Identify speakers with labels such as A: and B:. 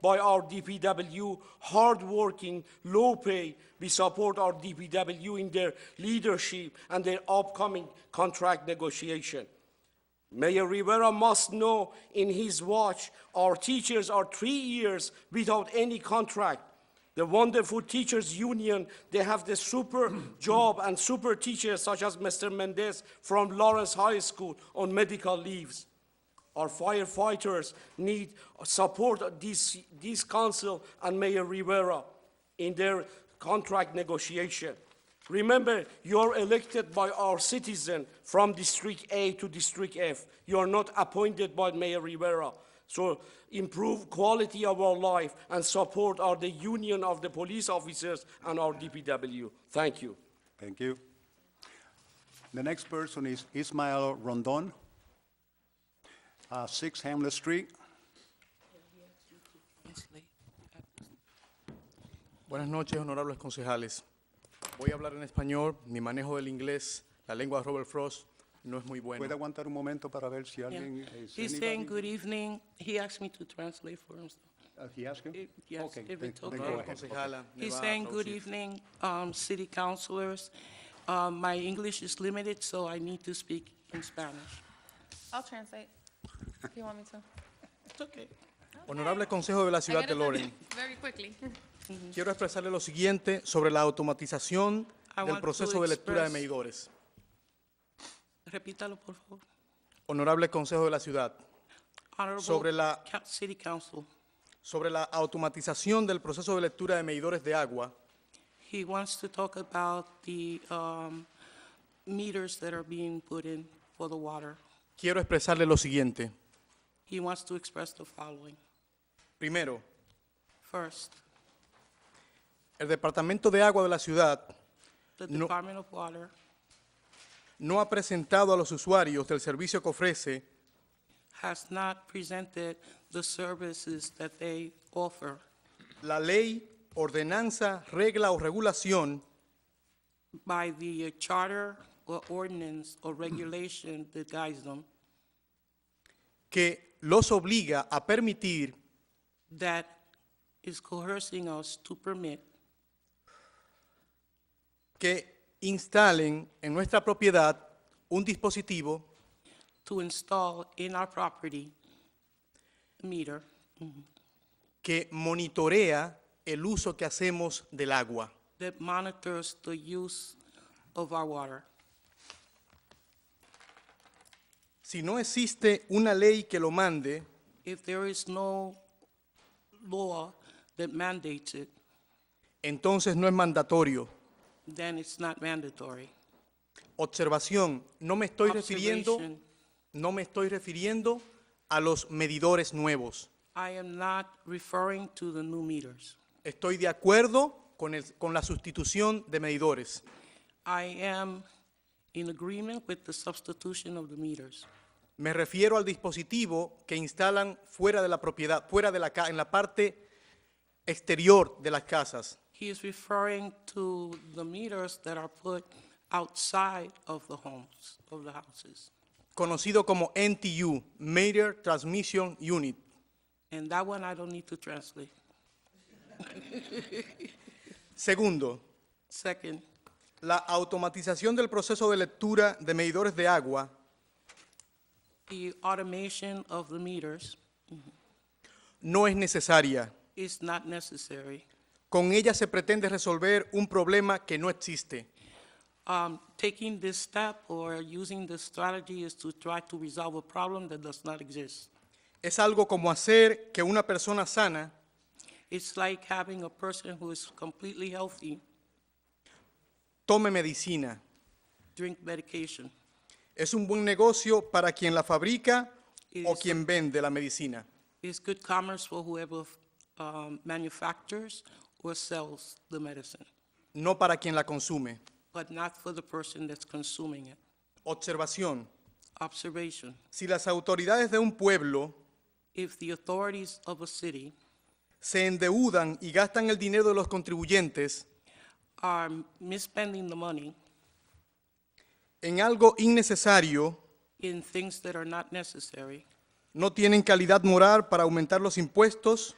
A: by our DPW, hardworking, low pay. We support our DPW in their leadership and their upcoming contract negotiation. Mayor Rivera must know in his watch, our teachers are three years without any contract. The wonderful teachers union, they have the super job and super teachers such as Mr. Mendez from Lawrence High School on medical leaves. Our firefighters need support this, this council and Mayor Rivera in their contract negotiation. Remember, you're elected by our citizen from District A to District F. You're not appointed by Mayor Rivera. So improve quality of our life and support our, the union of the police officers and our DPW. Thank you.
B: Thank you. The next person is Ismael Rondon, uh, 6 Hamlet Street.
C: Buenas noches, honorables concejales. Voy a hablar en español, mi manejo del inglés, la lengua de Robert Frost, no es muy
B: ¿Puede
C: buena.
B: aguantar un momento para ver si
D: Yeah.
B: alguien... is
D: He's saying
B: anybody-
D: good evening. He asked me to translate for him. so-
B: Uh, he asked you?
D: Eh, yes,
B: Okay,
D: if
B: then-
D: it's okay.
B: then go
C: Honorable
B: ahead.
C: concejala, me
D: He's
C: va a
D: saying good
C: traducir.
D: evening, um, city councilors. Um, my English is limited, so I need to speak in Spanish.
E: I'll translate if you want me to.
D: It's okay.
C: Honorable Consejo de la
E: I
C: Ciudad
E: gotta
C: de
E: tell
C: Loren,
E: you Very quickly.
C: quiero expresarle lo siguiente sobre la automatización
D: I want
C: del
D: to
C: proceso de lectura de
D: express-
C: medidores.
D: Repítalo, por favor.
C: Honorable Consejo de la Ciudad,
D: Honorable
C: Sobre la-
D: Ca- City Council.
C: sobre la automatización del proceso de lectura de medidores de agua,
D: He wants to talk about the, um, meters that are being put in for the water.
C: quiero expresarle lo siguiente.
D: He wants to express the following.
C: Primero,
D: First,
C: el Departamento de Agua de la Ciudad
D: the
C: No.
D: Department of Water
C: no ha presentado a los usuarios del servicio que ofrece
D: has not presented the services that they offer
C: la ley, ordenanza, regla o regulación
D: by the charter or ordinance or regulation that guides them,
C: que los obliga a permitir
D: that is coercing us to permit
C: que instalen en nuestra propiedad un dispositivo
D: to install in our property meter
C: que monitorea el uso que hacemos del agua.
D: that monitors the use of our water.
C: Si no existe una ley que lo mande,
D: If there is no law that mandates it,
C: entonces no es mandatorio.
D: then it's not mandatory.
C: Observación, no me estoy refiriendo,
D: Observation.
C: no me estoy refiriendo a los medidores nuevos.
D: I am not referring to the new meters.
C: Estoy de acuerdo con, el- con la sustitución de medidores.
D: I am in agreement with the substitution of the meters.
C: Me refiero al dispositivo que instalan fuera de la propiedad, fuera de la ca- en la parte exterior de las casas,
D: He is referring to the meters that are put outside of the homes, of the houses.
C: conocido como NTU, Meter Transmission Unit.
D: And that one I don't need to translate.
C: Segundo,
D: Second,
C: la automatización del proceso de lectura de medidores de agua
D: the automation of the meters
C: no es necesaria.
D: is not necessary.
C: Con ella se pretende resolver un problema que no existe.
D: Um, Taking this step or using this strategy is to try to resolve a problem that does not exist.
C: Es algo como hacer que una persona sana
D: It's like having a person who is completely healthy
C: tome medicina.
D: drink medication.
C: Es un buen negocio para quien la fabrica
D: Y
C: o
D: eso-
C: quien vende la medicina.
D: It's good commerce for whoever um, manufactures or sells the medicine,
C: no para quien la consume.
D: but not for the person that's consuming it.
C: Observación.
D: Observation.
C: Si las autoridades de un pueblo
D: If the authorities of a city
C: se endeudan y gastan el dinero de los contribuyentes
D: are misspending the money
C: en algo innecesario,
D: in things that are not necessary,
C: no tienen calidad moral para aumentar los impuestos